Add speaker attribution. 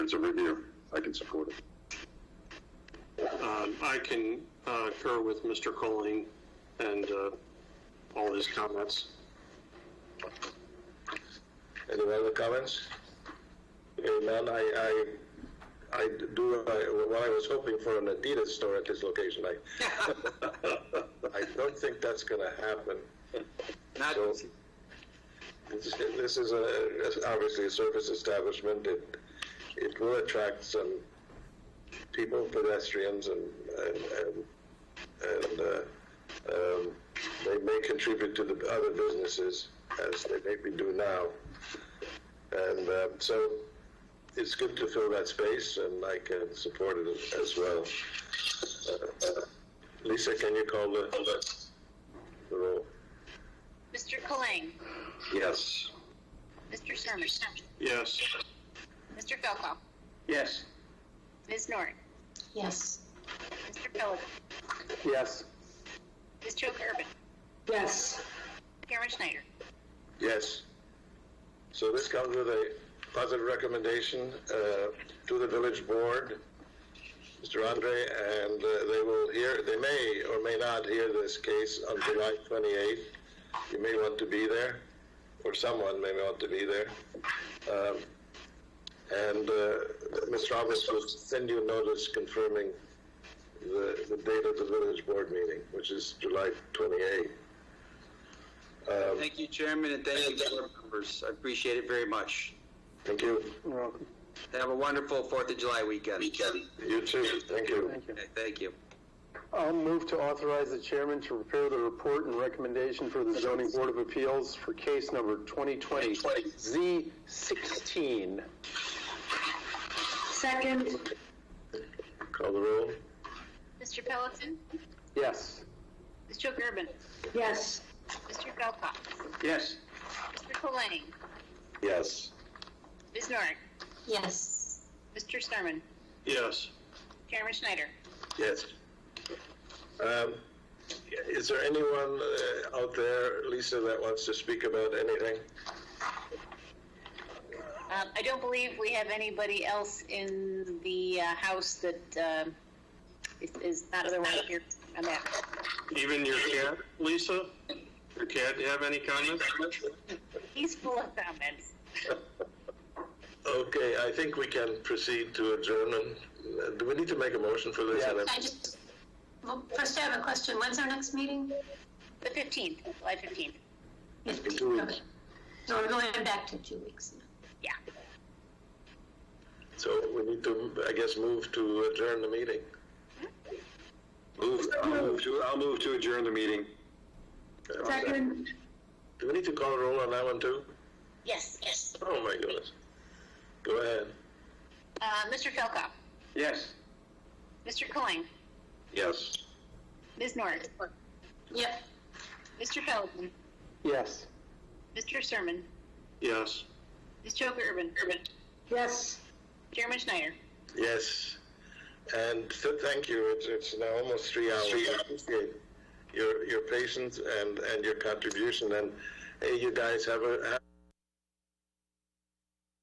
Speaker 1: It's a review. I can support it.
Speaker 2: Um, I can uh, concur with Mr. Colling and uh, all his comments.
Speaker 3: Any other comments? Hearing none, I, I, I do, I- well, I was hoping for an Adidas store at this location. I, I don't think that's gonna happen.
Speaker 4: Not,
Speaker 3: So, this this is a, is obviously a service establishment. It, it will attract some people, pedestrians, and, and, and, and uh, um, they may contribute to the other businesses as they maybe do now. And uh, so it's good to fill that space, and I can support it as well. Uh, uh, Lisa, can you call the, the roll?
Speaker 5: Mr. Colang,
Speaker 3: Yes.
Speaker 5: Mr. Sherman,
Speaker 2: Yes,
Speaker 5: Mr. Felkoff,
Speaker 4: yes.
Speaker 5: Ms. Norick,
Speaker 6: Yes.
Speaker 5: Mr. Philip,
Speaker 4: Yes.
Speaker 5: Ms. Joker Urban,
Speaker 6: Yes.
Speaker 5: Karen Schneider.
Speaker 3: Yes. So this comes with a positive recommendation uh, to the village board, Mr. Andre, and uh, they will hear, they may or may not hear this case on July 28th. You may want to be there, or someone may want to be there. Um, And uh, Ms. Roberts will send you a notice confirming the the date of the village board meeting, which is July 28th. Um,
Speaker 4: Thank you, Chairman, and thank you, board members. I appreciate it very much.
Speaker 3: Thank you.
Speaker 4: Have a wonderful Fourth of July weekend. Weekend.
Speaker 3: You too. Thank you.
Speaker 7: Thank you.
Speaker 4: Thank you.
Speaker 7: I'll move to authorize the chairman to prepare the report and recommendation for the zoning board of appeals for case number 2020 Z16.
Speaker 6: Second?
Speaker 3: Call the roll?
Speaker 5: Mr. Pelletin,
Speaker 7: Yes.
Speaker 5: Ms. Joker Urban,
Speaker 6: Yes.
Speaker 5: Mr. Felkoff,
Speaker 4: Yes.
Speaker 5: Mr. Colang,
Speaker 3: Yes.
Speaker 5: Ms. Norick,
Speaker 6: Yes.
Speaker 5: Mr. Sherman,
Speaker 2: yes.
Speaker 5: Karen Schneider.
Speaker 3: Yes. Um, Is there anyone uh, out there, Lisa, that wants to speak about anything?
Speaker 5: Um, I don't believe we have anybody else in the uh, house that um, is- is not otherwise here on that.
Speaker 2: Even your cat, Lisa? Your cat, do you have any comments?
Speaker 5: He's full of comments.
Speaker 3: Okay, I think we can proceed to adjournment. Uh, Do we need to make a motion for this?
Speaker 6: I just, well, first I have a question. When's our next meeting?
Speaker 5: The 15th, July 15th.
Speaker 3: two weeks.
Speaker 6: Okay. So we're going back to two weeks.
Speaker 5: Yeah.
Speaker 3: So we need to, I guess, move to adjourn the meeting. Move, I'll move to, I'll move to adjourn the meeting.
Speaker 6: Second?
Speaker 3: Do we need to call a roll on that one too?
Speaker 5: Yes, yes.
Speaker 3: Oh my goodness. Go ahead.
Speaker 5: Uh, Mr. Felkoff,
Speaker 4: Yes.
Speaker 5: Mr. Colang,
Speaker 3: Yes.
Speaker 5: Ms. Norick,
Speaker 6: Yep.
Speaker 5: Mr. Pelletin,
Speaker 7: Yes.
Speaker 5: Mr. Sermon,
Speaker 2: Yes.
Speaker 5: Ms. Joker Urban, Urban,
Speaker 6: Yes.
Speaker 5: Chairman Schneider.
Speaker 3: Yes, and so thank you. It's, it's now almost three hours. I appreciate Your your patience and, and your contribution, and hey, you guys have a. Have